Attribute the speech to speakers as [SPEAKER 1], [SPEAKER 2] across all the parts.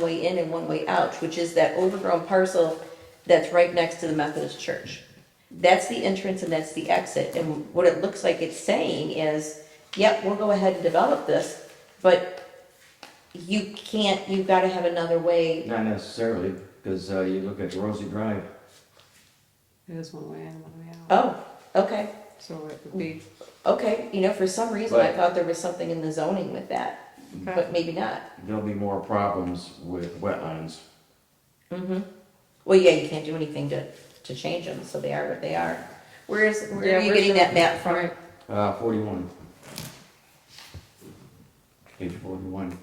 [SPEAKER 1] way in and one way out, which is that overgrown parcel that's right next to the Methodist church. That's the entrance and that's the exit, and what it looks like it's saying is, yep, we'll go ahead and develop this, but you can't, you've gotta have another way.
[SPEAKER 2] Not necessarily, because uh, you look at Rosie Drive,
[SPEAKER 3] It is one way in, one way out.
[SPEAKER 1] Oh, okay,
[SPEAKER 3] So it would be,
[SPEAKER 1] okay, you know, for some reason I
[SPEAKER 2] Right.
[SPEAKER 1] thought there was something in the zoning with that, but
[SPEAKER 3] okay,
[SPEAKER 1] maybe not.
[SPEAKER 2] there'll be more problems with wetlands.
[SPEAKER 1] Mm-hmm. Well, yeah, you can't do anything to, to change them, so they are what they are. Where is, where
[SPEAKER 3] Yeah,
[SPEAKER 1] are you
[SPEAKER 3] where's
[SPEAKER 1] getting
[SPEAKER 3] your-
[SPEAKER 1] that map from?
[SPEAKER 3] Right.
[SPEAKER 2] Uh, forty-one. Page forty-one.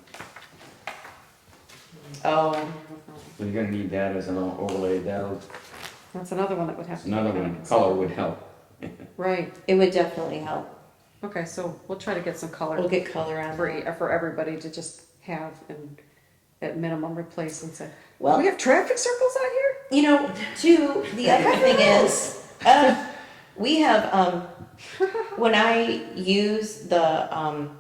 [SPEAKER 1] Oh,
[SPEAKER 2] So you're gonna need that as an overlay, that'll,
[SPEAKER 3] that's another one that would have
[SPEAKER 2] that's
[SPEAKER 3] to. be
[SPEAKER 2] another
[SPEAKER 3] kinda
[SPEAKER 2] one,
[SPEAKER 3] considered.
[SPEAKER 2] color would help.
[SPEAKER 3] Right,
[SPEAKER 1] it would definitely help.
[SPEAKER 3] okay, so we'll try to get some
[SPEAKER 1] We'll
[SPEAKER 3] color
[SPEAKER 1] get color on
[SPEAKER 3] for,
[SPEAKER 1] it.
[SPEAKER 3] e- for everybody to just have and at minimum replace and say, we
[SPEAKER 1] Well,
[SPEAKER 3] have traffic circles out here?
[SPEAKER 1] you know, too, the other thing is, uh, we have, um, when I use the, um,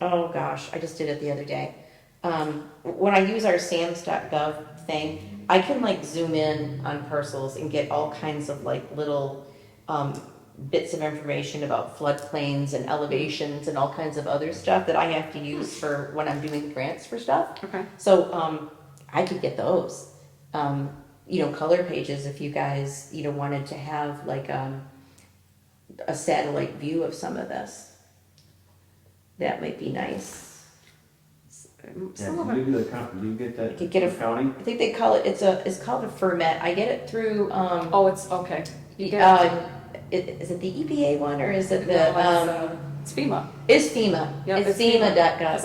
[SPEAKER 1] oh gosh, I just did it the other day. Um, when I use our SAMS.gov thing, I can like zoom in on parcels and get all kinds of like little, um, bits of information about floodplains and elevations and all kinds of other stuff that I have to use for when I'm doing grants for stuff.
[SPEAKER 3] Okay,
[SPEAKER 1] So um, I could get those. Um, you know, color pages if you guys, you know, wanted to have like um, a satellite view of some of this. That might be nice.
[SPEAKER 3] S- um,
[SPEAKER 2] Yeah,
[SPEAKER 3] some of
[SPEAKER 2] do you
[SPEAKER 3] them,
[SPEAKER 2] do the, co- do you get that?
[SPEAKER 1] Could get a-
[SPEAKER 2] from County?
[SPEAKER 1] I think they call it it's a it's called a ferment. I get it through um
[SPEAKER 3] oh, it's, okay. You get it.
[SPEAKER 1] uh, i- is it the EPA one or is it
[SPEAKER 3] No,
[SPEAKER 1] the
[SPEAKER 3] it's,
[SPEAKER 1] um
[SPEAKER 3] uh, It's FEMA,
[SPEAKER 1] is FEMA.
[SPEAKER 3] Yeah,
[SPEAKER 1] it's
[SPEAKER 3] it's FEMA. because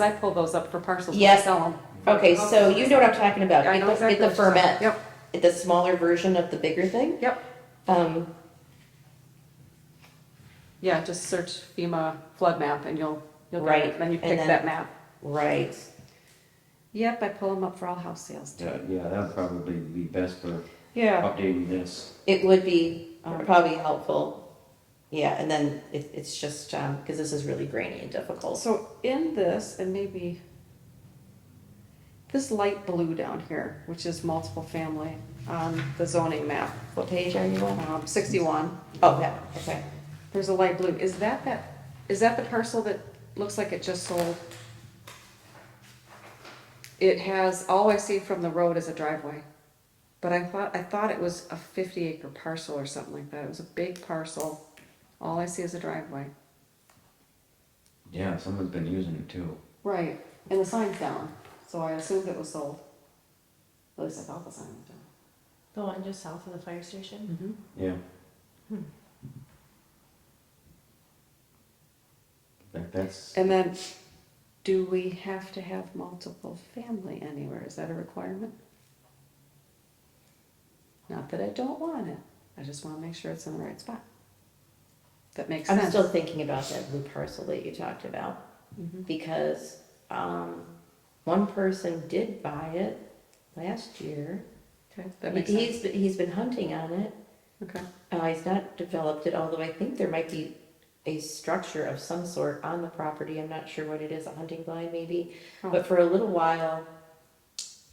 [SPEAKER 1] FEMA.gov.
[SPEAKER 3] I pull those up for parcels when I
[SPEAKER 1] Yes.
[SPEAKER 3] sell them.
[SPEAKER 1] Okay, so you know what I'm talking about.
[SPEAKER 3] Oh, I
[SPEAKER 1] Get
[SPEAKER 3] know
[SPEAKER 1] the,
[SPEAKER 3] exactly.
[SPEAKER 1] get the
[SPEAKER 3] what you're saying.
[SPEAKER 1] ferment. The smaller version of the bigger thing.
[SPEAKER 3] Yep, yep,
[SPEAKER 1] Um,
[SPEAKER 3] yeah, just search FEMA flood map and you'll, you'll get
[SPEAKER 1] Right,
[SPEAKER 3] it, then you
[SPEAKER 1] and
[SPEAKER 3] pick
[SPEAKER 1] then-
[SPEAKER 3] that map.
[SPEAKER 1] Right.
[SPEAKER 3] Yep, I pull them up for all house sales too.
[SPEAKER 2] Yeah, yeah, that'd probably be best for
[SPEAKER 3] Yeah,
[SPEAKER 2] updating this.
[SPEAKER 1] It would be um, probably helpful. Yeah, and then it, it's just, um, cause this is really grainy and difficult.
[SPEAKER 3] so in this, and maybe this light blue down here, which is multiple family on the zoning map,
[SPEAKER 1] What page are you on?
[SPEAKER 3] um, sixty-one,
[SPEAKER 1] Oh, that, okay.
[SPEAKER 3] there's a light blue, is that that, is that the parcel that looks like it just sold? It has, all I see from the road is a driveway, but I thought, I thought it was a fifty acre parcel or something like that, it was a big parcel, all I see is a driveway.
[SPEAKER 2] Yeah, someone's been using it too.
[SPEAKER 3] Right, and the sign's down, so I assumed it was sold. At least I thought the sign was down.
[SPEAKER 4] The one just south of the fire station?
[SPEAKER 2] Yeah. That, that's,
[SPEAKER 3] And then, do we have to have multiple family anywhere? Is that a requirement? Not that I don't want it, I just wanna make sure it's in the right spot. That makes
[SPEAKER 1] I'm
[SPEAKER 3] sense.
[SPEAKER 1] still thinking about that blue parcel that you talked about,
[SPEAKER 4] Mm-hmm.
[SPEAKER 3] Mhm.
[SPEAKER 1] because, um, one person did buy it last year.
[SPEAKER 3] Okay, that makes sense,
[SPEAKER 1] He's, he's been hunting on it.
[SPEAKER 3] okay.
[SPEAKER 1] Uh, he's not developed it, although I think there might be a structure of some sort on the property. I'm not sure what it is, a hunting blind maybe. But for a little while,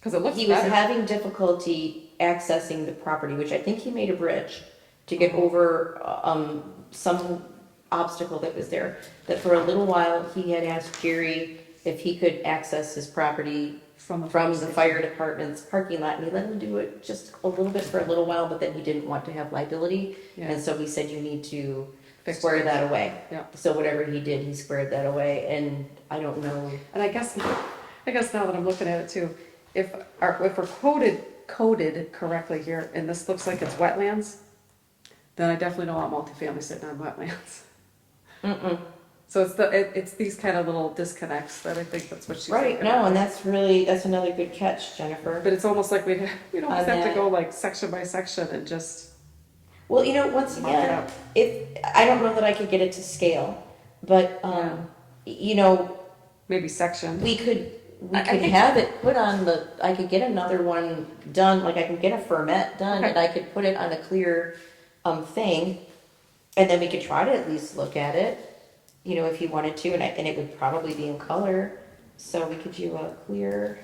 [SPEAKER 3] Cause it looks
[SPEAKER 1] he was
[SPEAKER 3] better,
[SPEAKER 1] having difficulty accessing the property, which I think he made a bridge to get over um, some obstacle that was there. That for a little while, he had asked Jerry if he could access his property
[SPEAKER 3] from the.
[SPEAKER 1] from the fire department's parking lot, and he let him do it just a little bit for a little while, but then he didn't want to have liability. And
[SPEAKER 3] Yeah,
[SPEAKER 1] so we said, you need to
[SPEAKER 3] Fix
[SPEAKER 1] square
[SPEAKER 3] it.
[SPEAKER 1] that away.
[SPEAKER 3] yeah.
[SPEAKER 1] So whatever he did, he squared that away, and I don't know,
[SPEAKER 3] And I guess, I guess now that I'm looking at it too, if, our- if we're quoted, coded correctly here, and this looks like it's wetlands, then I definitely don't want multifamily sitting on wetlands.
[SPEAKER 1] mm-mm.
[SPEAKER 3] So it's the, it, it's these kind of little disconnects that I think that's what she's.
[SPEAKER 1] Right,
[SPEAKER 3] thinking
[SPEAKER 1] no,
[SPEAKER 3] about.
[SPEAKER 1] and that's really, that's another good catch, Jennifer.
[SPEAKER 3] But it's almost like we, we don't
[SPEAKER 1] On
[SPEAKER 3] have to
[SPEAKER 1] that.
[SPEAKER 3] go like section by section and just
[SPEAKER 1] Well, you know, once
[SPEAKER 3] mark it
[SPEAKER 1] again,
[SPEAKER 3] up.
[SPEAKER 1] if, I don't know that I could get it to scale, but, um, you know,
[SPEAKER 3] Maybe section,
[SPEAKER 1] we could, we
[SPEAKER 3] I- I
[SPEAKER 1] could
[SPEAKER 3] think-
[SPEAKER 1] have it put on the, I could get another one done, like I can get a ferment done,
[SPEAKER 3] Okay.
[SPEAKER 1] and I could put it on a clear, um, thing, and then we could try to at least look at it, you know, if you wanted to, and I, and it would probably be in color, so we could do a clear,